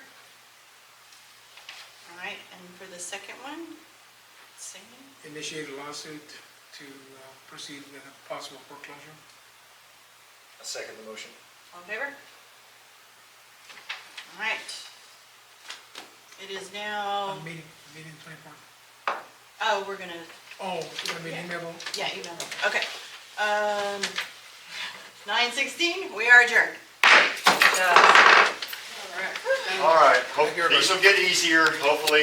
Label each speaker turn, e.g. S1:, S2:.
S1: right, and for the second one, same?
S2: initiate a lawsuit to uh, proceed with a possible foreclosure.
S3: I second the motion.
S1: All in favor? All right. It is now,
S2: On meeting, meeting twenty-four.
S1: oh, we're gonna,
S2: Oh, you want me to
S1: Yeah.
S2: email?
S1: yeah, you know, okay. Um, nine sixteen, we are adjourned. Uh, all right.
S3: All right,
S2: Thank you,
S3: hope, these will get easier, hopefully.